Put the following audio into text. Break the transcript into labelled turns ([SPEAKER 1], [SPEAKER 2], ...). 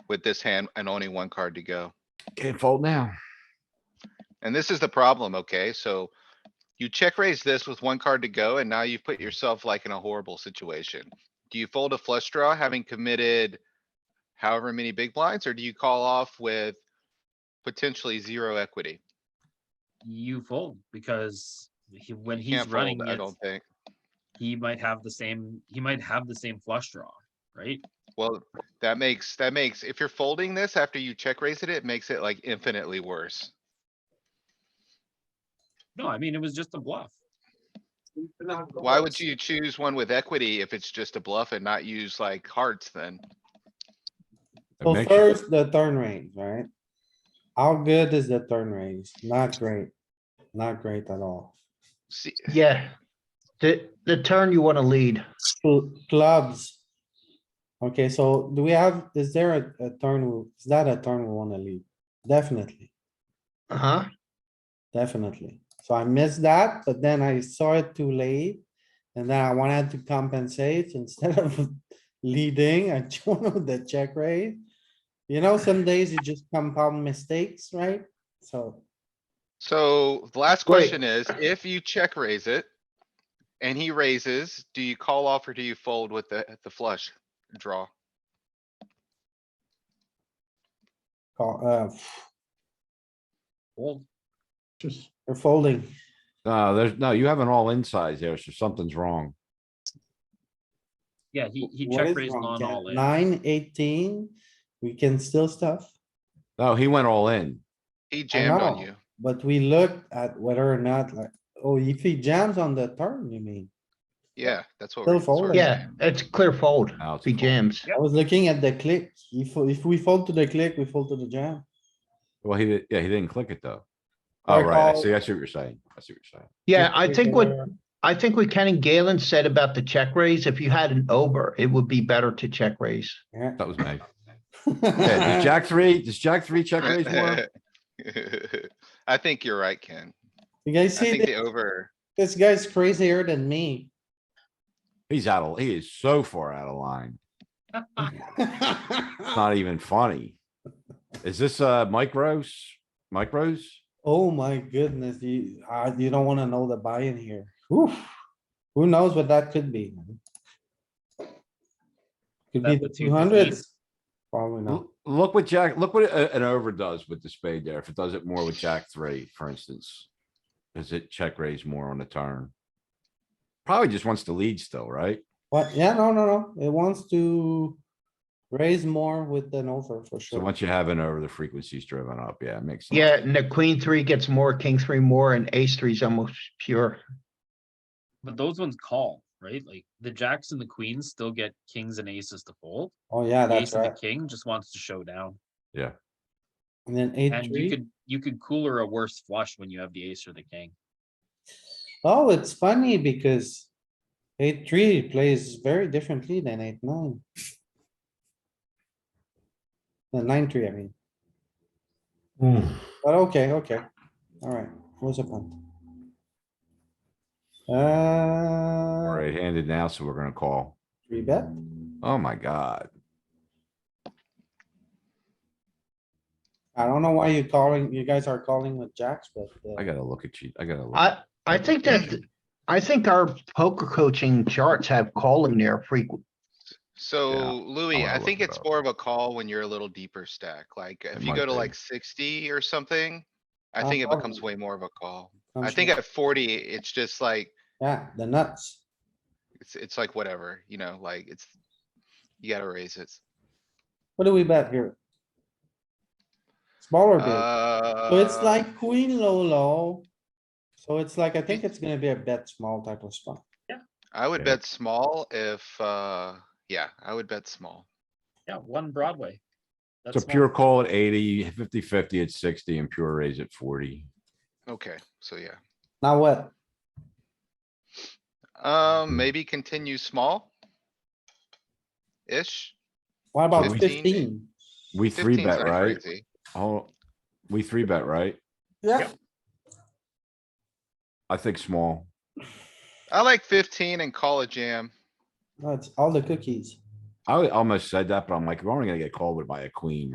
[SPEAKER 1] with this hand and only one card to go.
[SPEAKER 2] Can't fold now.
[SPEAKER 1] And this is the problem, okay? So you check raise this with one card to go and now you've put yourself like in a horrible situation. Do you fold a flush draw having committed however many big blinds, or do you call off with potentially zero equity?
[SPEAKER 3] You fold because he, when
[SPEAKER 1] You
[SPEAKER 3] he's
[SPEAKER 1] can't fold,
[SPEAKER 3] running
[SPEAKER 1] I
[SPEAKER 3] it,
[SPEAKER 1] don't think.
[SPEAKER 3] he might have the same, he might have the same flush draw, right?
[SPEAKER 1] Well, that makes, that makes, if you're folding this after you check raise it, it makes it like infinitely worse.
[SPEAKER 3] No, I mean, it was just a bluff.
[SPEAKER 1] Why would you choose one with equity if it's just a bluff and not use like hearts then?
[SPEAKER 4] It
[SPEAKER 5] So
[SPEAKER 4] makes-
[SPEAKER 5] first, the turn range, right? How good is the turn range? Not great. Not great at all.
[SPEAKER 1] See,
[SPEAKER 6] Yeah. The, the turn you wanna lead.
[SPEAKER 5] Cl- Clubs. Okay, so do we have, is there a, a turn, we- is that a turn we wanna lead? Definitely,
[SPEAKER 6] Uh-huh.
[SPEAKER 5] definitely. So I missed that, but then I saw it too late. And then I wanted to compensate instead of leading, I chose the check raise. You know, some days you just compound mistakes, right? So,
[SPEAKER 1] So the last
[SPEAKER 6] Wait.
[SPEAKER 1] question is, if you check raise it. And he raises, do you call off or do you fold with the, the flush draw?
[SPEAKER 5] call- uh,
[SPEAKER 3] Fold.
[SPEAKER 6] Just
[SPEAKER 5] You're folding.
[SPEAKER 4] No, there's, no, you have an all in size there, so something's wrong.
[SPEAKER 3] Yeah, he, he
[SPEAKER 5] What
[SPEAKER 3] check
[SPEAKER 5] is
[SPEAKER 3] raised
[SPEAKER 5] wrong,
[SPEAKER 3] on
[SPEAKER 5] Ken?
[SPEAKER 3] all in.
[SPEAKER 5] Nine, eighteen, we can still stuff,
[SPEAKER 4] No, he went all in.
[SPEAKER 1] He jammed on
[SPEAKER 5] know.
[SPEAKER 1] you.
[SPEAKER 5] but we looked at whether or not like, oh, if he jams on the turn, you mean?
[SPEAKER 1] Yeah, that's what.
[SPEAKER 5] Still
[SPEAKER 1] we're sort of
[SPEAKER 5] folding.
[SPEAKER 6] Yeah,
[SPEAKER 1] saying.
[SPEAKER 6] it's clear fold.
[SPEAKER 4] No, it's a
[SPEAKER 6] He
[SPEAKER 4] Uh, fold.
[SPEAKER 6] jams.
[SPEAKER 3] Yep.
[SPEAKER 5] I was looking at the click. If, if we fold to the click, we fold to the jam.
[SPEAKER 4] Well, he, did- yeah, he didn't click it though.
[SPEAKER 5] I
[SPEAKER 4] All right, I
[SPEAKER 5] call-
[SPEAKER 4] see, I see what you're saying. I see what you're saying.
[SPEAKER 6] Yeah,
[SPEAKER 5] If
[SPEAKER 6] I
[SPEAKER 5] we
[SPEAKER 6] think what,
[SPEAKER 5] were-
[SPEAKER 6] I think what Ken and Galen said about the check raise, if you had an over, it would be better to check raise.
[SPEAKER 5] Yeah.
[SPEAKER 4] That was me. Yeah, does Jack three, does Jack three check raise more?
[SPEAKER 1] I think you're right, Ken.
[SPEAKER 5] You guys
[SPEAKER 1] I
[SPEAKER 5] see,
[SPEAKER 1] think the
[SPEAKER 5] thi-
[SPEAKER 1] over,
[SPEAKER 5] this guy's crazier than me.
[SPEAKER 4] He's out of, he is so far out of line. It's not even funny. Is this, uh, Mike Rose? Mike Rose?
[SPEAKER 5] Oh my goodness, you, uh, you don't wanna know the buy-in here. Oof. Who knows what that could be? man? Could be
[SPEAKER 3] That
[SPEAKER 5] the
[SPEAKER 3] puts you
[SPEAKER 5] two
[SPEAKER 3] to
[SPEAKER 5] hundreds. Probably not.
[SPEAKER 4] L- Look what Jack, look what a- an over does with the spade there. If it does it more with Jack three, for instance. Does it check raise more on the turn? Probably just wants to lead still, right?
[SPEAKER 5] What? Yeah, no, no, no. It wants to raise more with an over for
[SPEAKER 4] So
[SPEAKER 5] sure.
[SPEAKER 4] once you have an over, the frequency's driven up. Yeah, it makes. sense.
[SPEAKER 6] Yeah, and the queen three gets more, king three more, and ace three is almost pure.
[SPEAKER 3] But those ones call, right? Like the jacks and the queens still get kings and aces to fold.
[SPEAKER 5] Oh, yeah,
[SPEAKER 3] The
[SPEAKER 5] that's
[SPEAKER 3] ace and the
[SPEAKER 5] right.
[SPEAKER 3] king just wants to show down.
[SPEAKER 5] And then eight,
[SPEAKER 3] And you
[SPEAKER 5] three.
[SPEAKER 3] could, you could cooler a worse flush when you have the ace or the king.
[SPEAKER 5] Oh, it's funny because eight, three plays very differently than eight, nine. The nine, three, I mean, but okay, okay. Alright, what's the point?
[SPEAKER 4] We're
[SPEAKER 5] Uh,
[SPEAKER 4] Right-handed now, so we're gonna call.
[SPEAKER 5] three bet,
[SPEAKER 4] Oh my god.
[SPEAKER 5] I don't know why you're calling, you guys are calling with jacks, but. uh,
[SPEAKER 4] I gotta look at you. I gotta. look.
[SPEAKER 6] I, I think that, I think our poker coaching charts have calling there frequent.
[SPEAKER 1] so Louis,
[SPEAKER 4] wanna
[SPEAKER 1] I
[SPEAKER 4] look
[SPEAKER 1] think
[SPEAKER 4] it
[SPEAKER 1] it's
[SPEAKER 4] up.
[SPEAKER 1] more of a call when you're a little deeper stack. Like if you
[SPEAKER 4] might
[SPEAKER 1] go to
[SPEAKER 4] be.
[SPEAKER 1] like sixty or something. I
[SPEAKER 5] Uh,
[SPEAKER 1] think it becomes
[SPEAKER 5] probably.
[SPEAKER 1] way more of a call.
[SPEAKER 5] I'm
[SPEAKER 1] I think
[SPEAKER 5] sure.
[SPEAKER 1] at forty, it's just like,
[SPEAKER 5] Yeah, the nuts.
[SPEAKER 1] it's, it's like whatever, you know, like it's. You gotta raise it.
[SPEAKER 5] What do we bet here? Smaller bit, so it's
[SPEAKER 1] Uh,
[SPEAKER 5] like queen low low. So it's like, I think it's gonna be a bet small type of spot.
[SPEAKER 1] I would
[SPEAKER 4] Yeah.
[SPEAKER 1] bet small if, uh, yeah, I would bet small.
[SPEAKER 3] Yeah, one Broadway.
[SPEAKER 4] It's
[SPEAKER 3] That's
[SPEAKER 4] a pure call at 80, 50 50 at sixty and pure raise at forty.
[SPEAKER 1] Okay, so yeah.
[SPEAKER 5] Now what?
[SPEAKER 1] Um, maybe continue small. Ish.
[SPEAKER 5] What about
[SPEAKER 1] Fifteen.
[SPEAKER 5] fifteen?
[SPEAKER 4] We three
[SPEAKER 1] 15's
[SPEAKER 4] bet,
[SPEAKER 1] not
[SPEAKER 4] right?
[SPEAKER 1] crazy.
[SPEAKER 4] Oh, we three bet, right?
[SPEAKER 5] Yeah.
[SPEAKER 4] I think small.
[SPEAKER 1] I like fifteen and call a jam.
[SPEAKER 5] That's all the cookies.
[SPEAKER 4] I almost said that, but I'm like, we're only gonna get called with by a queen,